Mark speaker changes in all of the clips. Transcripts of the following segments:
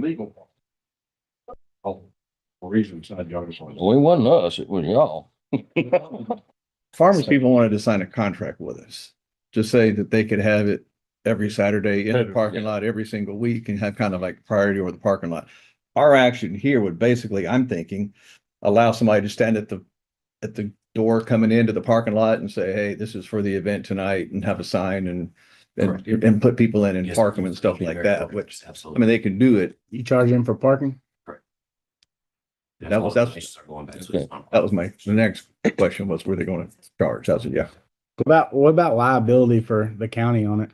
Speaker 1: legal. Oh, for reasons I just want
Speaker 2: Well, it wasn't us, it was y'all.
Speaker 1: to.
Speaker 3: Farmers people wanted to sign a contract with us to say that they could have it every Saturday in the
Speaker 1: Saturday,
Speaker 3: parking lot every single week and have kind of like priority over the parking lot. Our action here would basically, I'm thinking, allow somebody to stand at the, at the door coming into the parking lot and say, hey, this is for the event tonight and have a sign and, and, and put people in and park them and stuff like that, which, I mean,
Speaker 4: Absolutely.
Speaker 3: they can do it.
Speaker 5: You charge them for parking?
Speaker 3: that was- that's- That was my, the next question was, were they going to charge? I said, yeah.
Speaker 5: What about, what about liability for the county on it?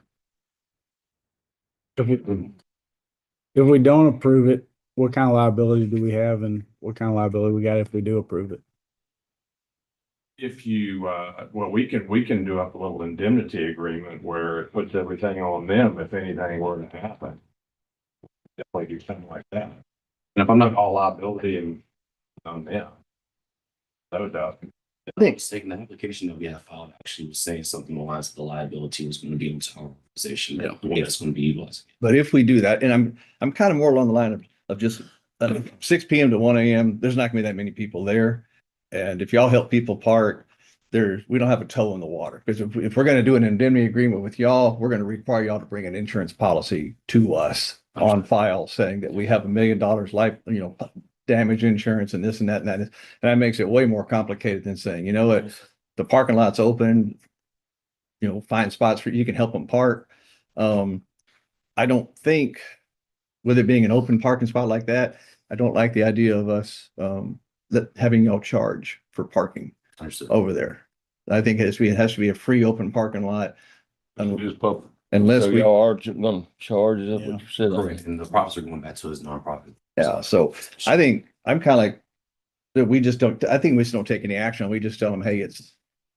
Speaker 5: If we, if we don't approve it, what kind of liability do we have and what kind of liability we got if we do approve it?
Speaker 1: If you, uh, well, we can, we can do up a little indemnity agreement where it puts everything on them if anything were to happen. Definitely do something like that. And if I'm not all liability and, on them. No doubt.
Speaker 4: I think the application that we have filed actually was saying something along the lines of the liability was going to be into our organization. Yeah. It's going to be utilized.
Speaker 3: But if we do that, and I'm, I'm kind of more along the line of, of just uh, six P M to one A M, there's not gonna be that many people there. And if y'all help people park, there, we don't have a toe in the water. Because if, if we're gonna do an indemnity agreement with y'all, we're gonna require y'all to bring an insurance policy to us on file saying that we have a million dollars life, you know, damage insurance and this and that and that. And that makes it way more complicated than saying, you know what, the parking lot's open. You know, find spots for, you can help them park. Um, I don't think, with it being an open parking spot like that, I don't like the idea of us, um, that having y'all charge for parking
Speaker 4: Understood.
Speaker 3: over there. I think it has to be, it has to be a free open parking lot un-
Speaker 1: Just pub,
Speaker 3: unless
Speaker 2: So
Speaker 3: we,
Speaker 2: y'all are ju- gonna charge us, what you said.
Speaker 4: Correct. And the profits are going back to his nonprofit.
Speaker 3: yeah, so I think, I'm kind of like, that we just don't, I think we just don't take any action. We just tell them, hey, it's,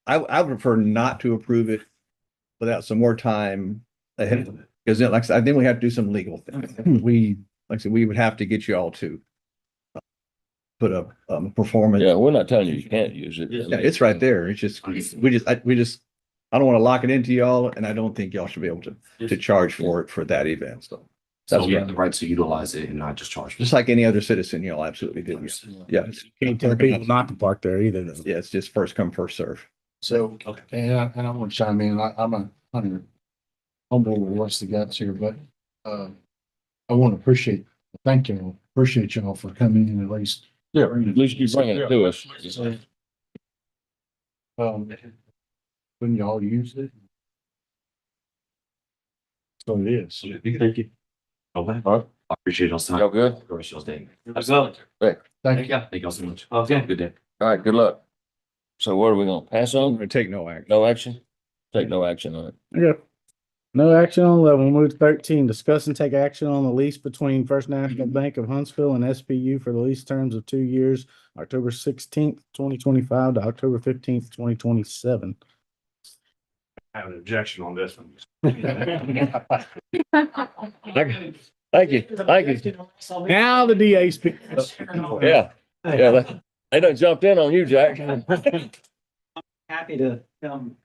Speaker 3: I, I would prefer not to approve it without some more time ahead of it. Because then, like, I said, I think we have to do some legal things. We, like I said, we would have to get you all to uh, put up, um, performance.
Speaker 2: Yeah, we're not telling you you can't use it.
Speaker 3: Yeah, it's right there. It's just,
Speaker 4: Understood.
Speaker 3: we just, I, we just, I don't want to lock it into y'all and I don't think y'all should be able to, to charge for it for that event. So
Speaker 4: So
Speaker 3: That's
Speaker 4: we
Speaker 3: right.
Speaker 4: have the right to utilize it and not just charge.
Speaker 3: just like any other citizen, y'all absolutely do. Yeah. it's-
Speaker 5: Can't tell people not to park there either. though.
Speaker 3: Yeah, it's just first come, first serve.
Speaker 6: So,
Speaker 4: Okay.
Speaker 6: and I, and I want to chime in, I, I'm a hundred humble with what's the guts here, but, uh, I want to appreciate, thank you, appreciate y'all for coming in at least.
Speaker 2: Yeah, at least you bringing it to us.
Speaker 6: Um, when y'all used it. So it is.
Speaker 4: Thank you. Okay.
Speaker 2: All right.
Speaker 4: I appreciate y'all's time.
Speaker 2: Y'all good?
Speaker 4: Have a good rest of y'all's day.
Speaker 7: Absolutely.
Speaker 6: Thank
Speaker 4: Thank
Speaker 6: you.
Speaker 4: you. Thank y'all so much.
Speaker 7: Okay.
Speaker 4: Good day.
Speaker 2: All right, good luck. So what are we gonna pass
Speaker 3: I'm
Speaker 2: on?
Speaker 3: gonna take no action.
Speaker 2: No action? Take no action on it.
Speaker 5: Okay. No action on eleven. We'll move to thirteen. Discuss and take action on the lease between First National Bank of Huntsville and SPU for the lease terms of two years, October sixteenth, twenty twenty-five to October fifteenth, twenty twenty-seven.
Speaker 1: I have an objection on this one.
Speaker 2: Thank you, thank you.
Speaker 5: Now the DA speaks.
Speaker 2: Yeah, yeah, they- they done jumped in on you, Jack.
Speaker 7: Happy to come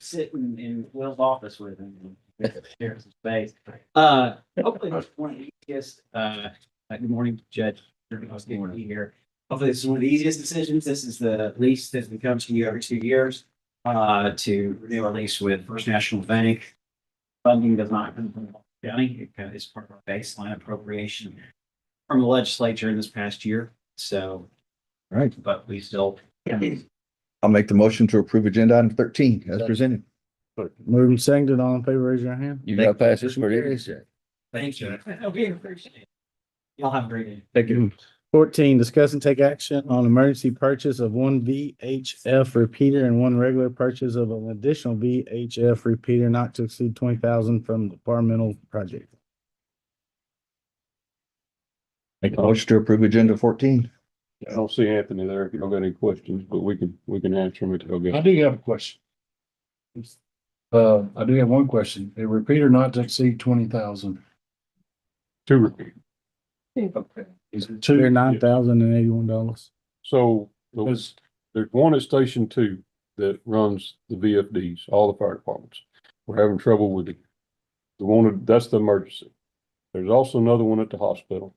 Speaker 7: sit in, in Will's office with him. and Share some space. Uh, hopefully this is one of the easiest, uh, uh, good morning, Judge. I was good to be here. Hopefully this is one of the easiest decisions. This is the lease that becomes to you every two years. Uh, to renew our lease with First National Bank. Funding does not come from the county. It kind of is part of our baseline appropriation from the legislature in this past year. So,
Speaker 3: All right.
Speaker 7: but we still
Speaker 3: I'll make the motion to approve agenda item thirteen as presented.
Speaker 5: Moving seconded, all in favor, raise your hand.
Speaker 2: You gotta pass this where it is, Jack.
Speaker 7: Thank you. We appreciate it. Y'all have a great day.
Speaker 3: Thank you.
Speaker 5: Fourteen, discuss and take action on emergency purchase of one VHF repeater and one regular purchase of an additional VHF repeater not to exceed twenty thousand from departmental project.
Speaker 3: Make the motion to approve agenda fourteen.
Speaker 1: I don't see Anthony there. If y'all got any questions, but we can, we can answer them if y'all
Speaker 6: I do have a question. Uh, I do have one question, a repeater not to exceed twenty thousand,
Speaker 1: Two repeat.
Speaker 6: is
Speaker 5: They're
Speaker 6: it two?
Speaker 5: nine thousand and eighty-one dollars.
Speaker 8: So the-
Speaker 6: Because
Speaker 8: there's one at Station Two that runs the VFDs, all the fire departments. We're having trouble with the, the one, that's the emergency. There's also another one at the hospital